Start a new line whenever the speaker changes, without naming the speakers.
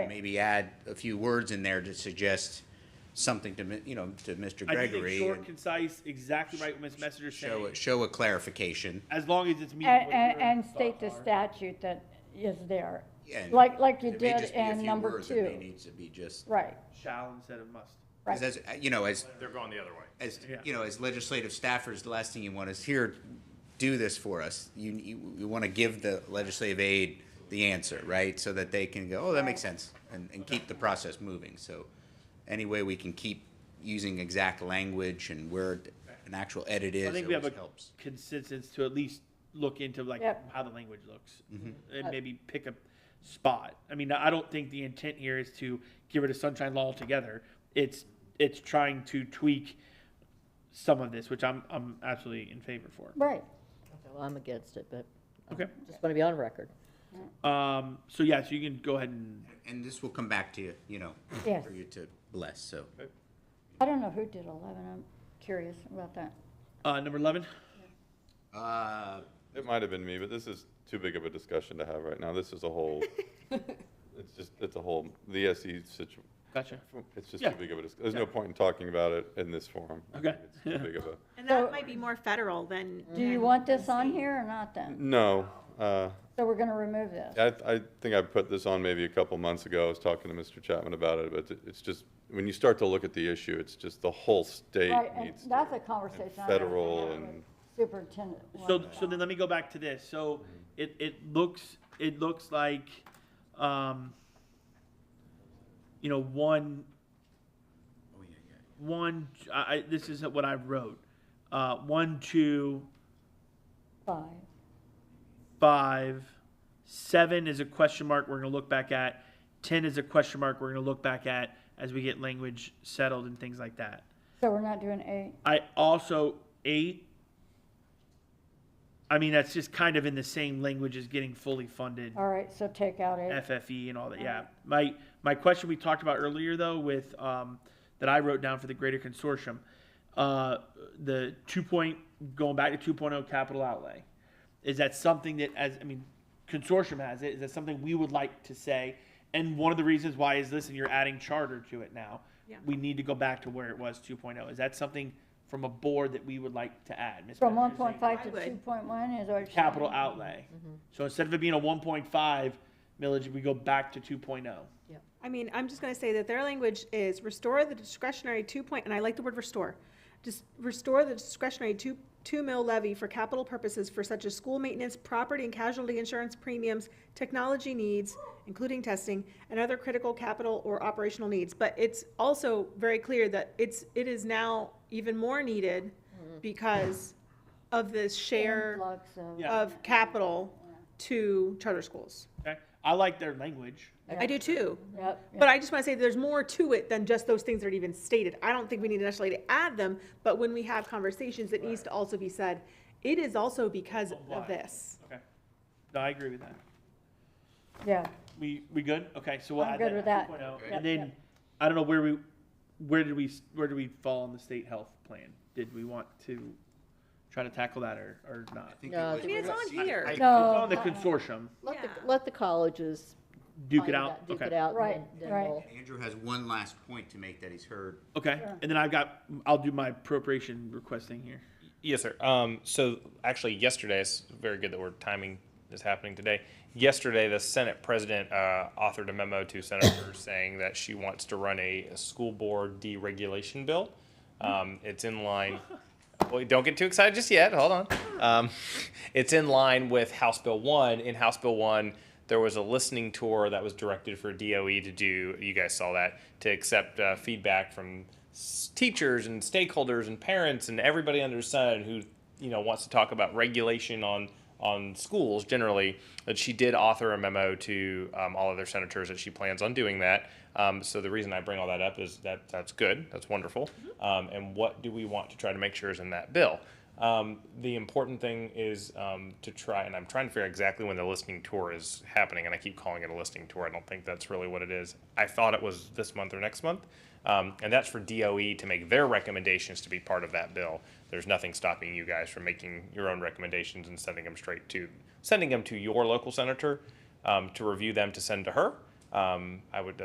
maybe add a few words in there to suggest something to, mi- you know, to Mr.
I think it's
Gregory.
short,
and
concise, exactly right what Ms. Messenger's
Show,
saying,
a- show a clarification.
as long as it's meeting
And,
what your
and, and state the
thoughts are.
statute that is there,
Yeah, and
like, like you
it may
did
just be a
in
few
number
words, it may
two.
need to be just,
Right,
Shall instead of must.
'cause
right.
as, you know, as,
They're going the other way.
as,
Yeah.
you know, as legislative staffers, the last thing you want is here, do this for us. You, you, you want to give the legislative aid the answer, right? So that they can go, oh, that makes sense, and, and keep the process moving. So any way we can keep using exact language and where an actual edit
I
is,
think we have a
always helps.
consensus to at least look into like
Yep.
how the language looks.
Mm-hmm.
And maybe pick a spot. I mean, I don't think the intent here is to get rid of sunshine law altogether. It's, it's trying to tweak some of this, which I'm, I'm absolutely in favor for.
Right,
Okay, Well, I'm against it, but um,
Okay,
just want to be on record.
um, so yeah, so you can go ahead and,
And this will come back to you, you know,
yes.
for you to bless, so.
I don't know who did eleven, I'm curious about that.
uh, number eleven?
Uh,
It might have been me, but this is too big of a discussion to have right now. This is a whole, it's just, it's a whole, the SE situation.
Gotcha.
It's just
Yeah.
too big of a, dis- there's no point in talking about it in this forum. I
Okay.
think It's too big of a,
And
So-
that might be more federal than.
Do you
Mm-hmm.
than
want this on
state.
here or not then?
no, uh,
So we're gonna remove this.
I, I think I put this on maybe a couple months ago. I was talking to Mr. Chapman about it, but it- it's just, when you start to look at the issue, it's just the whole state
Right, and
needs.
that's
to-
a conversation. I'm gonna have
Federal
with
and-
Superintendent.
So, so then let me go back to this. So it, it looks, it looks like, um, you know, one, one, I, I- this is what I wrote. Uh, one, two,
Five,
five, seven is a question mark we're gonna look back at. Ten is a question mark we're gonna look back at as we get language settled and things like that.
so we're not doing eight,
I also eight. I mean, that's just kind of in the same language as getting fully funded
all right, so take out eight,
FFE E and all that. Yeah. My my question we talked about earlier though with um, that I wrote down for the greater consortium, uh, the two point going back to 2.0 capital outlay, is that something that as I mean consortium has it is that something we would like to say, and one of the reasons why is listen you're adding charter to it now.
Yeah.
We need to go back to where it was 2.0. Is that something from a board that we would like to add? Ms.
from
Bethany?
one point five to
I would.
two point one is what you're saying?
capital outlay. So instead of it being a one point five millage, we go back to two oh.
I mean, I'm just gonna say that their language is restore the discretionary two point, and I like the word restore. Just restore the discretionary two, two mil levy for capital purposes for such as school maintenance, property and casualty insurance premiums, technology needs, including testing, and other critical capital or operational needs. But it's also very clear that it's, it is now even more needed because of this share
Influx of-
Yeah.
of capital to charter schools.
Okay, I like their language.
I do too.
Yep, yep.
But I just want to say there's more to it than just those things that are even stated. I don't think we need to necessarily to add them, but when we have conversations, it needs to also be said, it is also because
Why?
of this.
Okay, no, I agree with that.
yeah.
We we good? Okay, so we'll
I'm
add
good with that.
that. to 2.0.
Yep,
And then,
yep.
I don't know where we, where did we s- where did we fall on the state health plan? Did we want to try to tackle that or or not?
think it
No, I
was-
think
it's on here.
I-
It's
No.
on the consortium.
Let the,
Yeah.
let the colleges.
Duke
find
it out.
Duke
okay.
it out. and
Right,
then- then
right.
we'll-
Andrew has one last point to make that he's heard.
Okay, and then I've got I'll do my appropriation requesting here.
Yes, sir. Um, so actually yesterday, it's very good that we're timing is happening today. Yesterday, the Senate president, uh, authored a memo to senators saying that she wants to run a, a school board deregulation bill. Um, it's in line, well, don't get too excited just yet. Hold on. Um, it's in line with House Bill one. In House Bill one, there was a listening tour that was directed for DOE to do. You guys saw that to accept uh, feedback from s- teachers and stakeholders and parents and everybody under the sun who you know wants to talk about regulation on on schools generally. That she did author a memo to um, all of their senators that she plans on doing that. Um, so the reason I bring all that up is that that's good, that's wonderful. Um, and what do we want to try to make sure is in that bill? Um, the important thing is um, to try, and I'm trying to figure out exactly when the listening tour is happening, and I keep calling it a listening tour. I don't think that's really what it is. I thought it was this month or next month, um, and that's for DOE to make their recommendations to be part of that bill. There's nothing stopping you guys from making your own recommendations and sending them straight to sending them to your local senator um, to review them to send to her. Um, I would